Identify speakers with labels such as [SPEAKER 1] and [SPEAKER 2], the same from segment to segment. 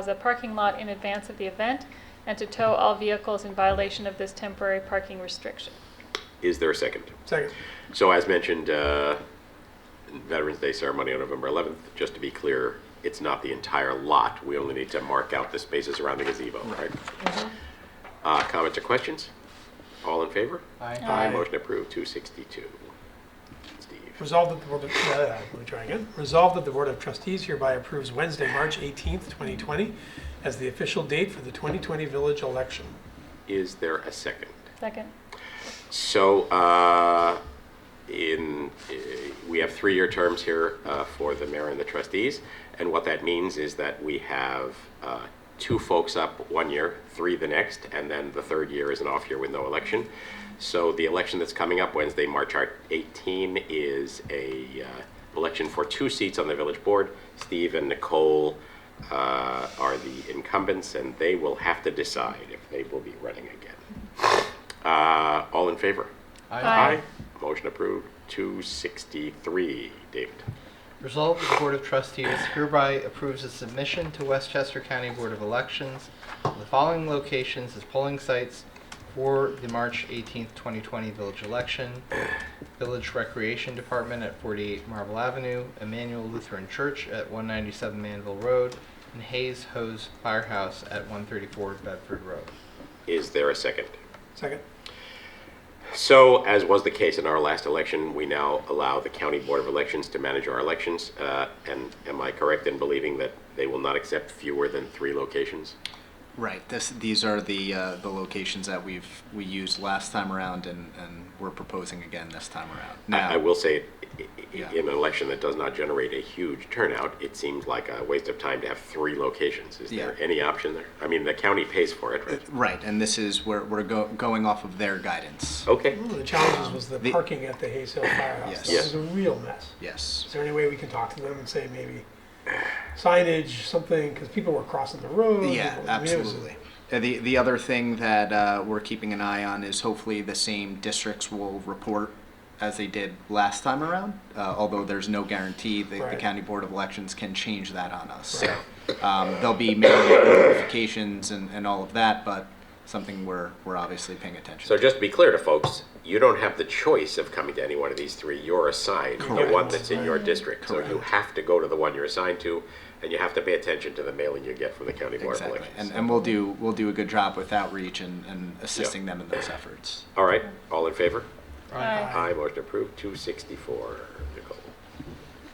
[SPEAKER 1] as a parking lot in advance of the event and to tow all vehicles in violation of this temporary parking restriction.
[SPEAKER 2] Is there a second?
[SPEAKER 3] Second.
[SPEAKER 2] So as mentioned, uh, Veterans Day ceremony on November 11th, just to be clear, it's not the entire lot. We only need to mark out the spaces around the gazebo, right? Uh, Comments or questions? All in favor?
[SPEAKER 1] Aye.
[SPEAKER 2] Motion approved, 262. Steve,
[SPEAKER 3] Resolved that the Board of, uh, let me try again. Resolved that the Board of Trustees hereby approves Wednesday, March 18th, 2020 as the official date for the 2020 village election.
[SPEAKER 2] is there a second?
[SPEAKER 1] Second.
[SPEAKER 2] So uh, in, uh, we have three-year terms here uh, for the mayor and the trustees, and what that means is that we have uh, two folks up one year, three the next, and then the third year is an off year with no election. So the election that's coming up Wednesday, March 18, is a uh, election for two seats on the village board. Steve and Nicole uh, are the incumbents, and they will have to decide if they will be running again. Uh, All in favor?
[SPEAKER 1] Aye.
[SPEAKER 2] Motion approved, 263. David,
[SPEAKER 4] Resolved that the Board of Trustees hereby approves a submission to Westchester County Board of Elections of the following locations as polling sites for the March 18, 2020 village election. Village Recreation Department at 48 Marble Avenue, Emmanuel Lutheran Church at 197 Manville Road, and Hayes Hose Firehouse at 134 Bedford Road.
[SPEAKER 2] is there a second?
[SPEAKER 3] Second.
[SPEAKER 2] So, as was the case in our last election, we now allow the County Board of Elections to manage our elections. uh, And am I correct in believing that they will not accept fewer than three locations?
[SPEAKER 5] Right. This, these are the, uh, the locations that we've, we used last time around and, and we're proposing again this time around.
[SPEAKER 2] I I will say, i- i-
[SPEAKER 5] Yeah.
[SPEAKER 2] in an election that does not generate a huge turnout, it seems like a waste of time to have three locations. Is there
[SPEAKER 5] Yeah.
[SPEAKER 2] any option there? I mean, the county pays for it, right?
[SPEAKER 5] Right, and this is, we're, we're go, going off of their guidance.
[SPEAKER 2] Okay,
[SPEAKER 3] One of the challenges was the
[SPEAKER 5] The-
[SPEAKER 3] parking at the Hayes Hill Firehouse.
[SPEAKER 5] Yes.
[SPEAKER 3] That was a real mess. Is
[SPEAKER 5] Yes.
[SPEAKER 3] there any way we can talk to them and say maybe signage, something, because people were crossing the road?
[SPEAKER 5] Yeah,
[SPEAKER 3] people- I mean, it was-
[SPEAKER 5] absolutely. Uh, The, the other thing that, uh, we're keeping an eye on is hopefully the same districts will report as they did last time around, uh, although there's no guarantee that the
[SPEAKER 3] Right.
[SPEAKER 5] county board of elections can change that on us. So, um, there'll be mailing notifications and, and all of that, but something we're, we're obviously paying attention to.
[SPEAKER 2] So just to be clear to folks, you don't have the choice of coming to any one of these three. You're assigned the one
[SPEAKER 3] Correct.
[SPEAKER 2] that's in your district. So you have to go to the one you're assigned to, and you have to pay attention to the mailing you get from the county board of
[SPEAKER 5] Exactly,
[SPEAKER 2] elections.
[SPEAKER 5] and, and we'll do, we'll do a good job with outreach and, and assisting them in those efforts.
[SPEAKER 2] all right, all in favor?
[SPEAKER 1] Aye.
[SPEAKER 2] Aye, motion approved. Two sixty-four. Nicole,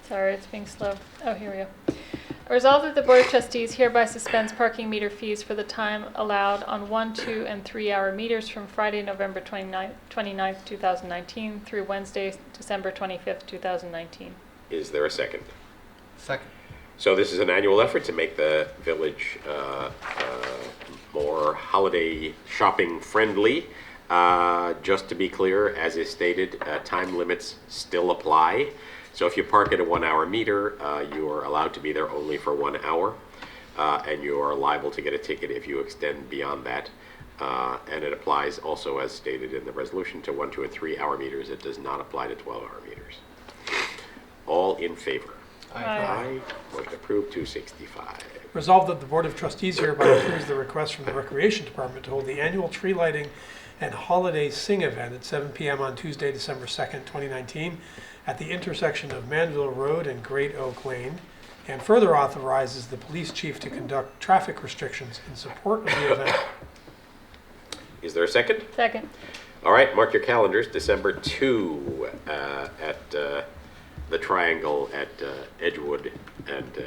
[SPEAKER 1] Sorry, it's being slow. Oh, here we go. Resolved that the Board of Trustees hereby suspends parking meter fees for the time allowed on one, two, and three-hour meters from Friday, November 29th, 29th, 2019 through Wednesday, December 25th, 2019.
[SPEAKER 2] is there a second?
[SPEAKER 4] Second.
[SPEAKER 2] So this is an annual effort to make the village uh, uh, more holiday shopping friendly. Uh, Just to be clear, as is stated, uh, time limits still apply. So if you park at a one-hour meter, uh, you are allowed to be there only for one hour, uh, and you are liable to get a ticket if you extend beyond that. Uh, And it applies also, as stated in the resolution, to one, two, and three-hour meters. It does not apply to 12-hour meters. All in favor? Aye. Motion approved, 265.
[SPEAKER 3] Resolved that the Board of Trustees hereby approves the request from the Recreation Department to hold the annual tree lighting and holiday sing event at 7 PM on Tuesday, December 2nd, 2019, at the intersection of Manville Road and Great Oak Lane, and further authorizes the police chief to conduct traffic restrictions in support of the event.
[SPEAKER 2] Is there a second?
[SPEAKER 1] Second.
[SPEAKER 2] All right, mark your calendars, December 2 uh, at uh, the Triangle at uh, Edgewood and, uh,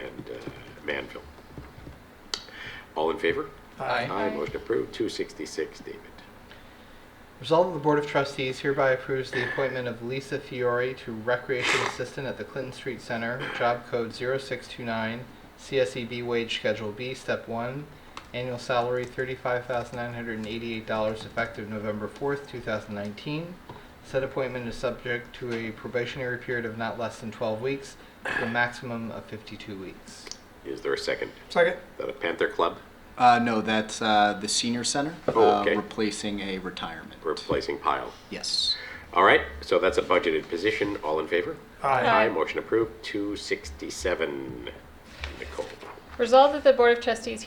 [SPEAKER 2] and uh, Manville. All in favor?
[SPEAKER 4] Aye.
[SPEAKER 1] Aye.
[SPEAKER 2] Motion approved, 266, David.
[SPEAKER 4] Resolved that the Board of Trustees hereby approves the appointment of Lisa Fiore to Recreation Assistant at the Clinton Street Center, job code 0629, CSEB wage schedule E B, step 1, annual salary $35,988 effective November 4th, 2019. Said appointment is subject to a probationary period of not less than 12 weeks, to a maximum of 52 weeks.
[SPEAKER 2] Is there a second?
[SPEAKER 3] Second?
[SPEAKER 2] Is that a Panther Club
[SPEAKER 5] Uh, no, that's, uh, the senior center,
[SPEAKER 2] Oh,
[SPEAKER 5] uh,
[SPEAKER 2] okay.
[SPEAKER 5] replacing a retirement.
[SPEAKER 2] replacing Pile?
[SPEAKER 5] Yes.
[SPEAKER 2] All right, so that's a budgeted position. All in favor?
[SPEAKER 3] Aye.
[SPEAKER 1] Aye.
[SPEAKER 2] Motion approved, 267, Nicole.
[SPEAKER 1] Resolved that the Board of Trustees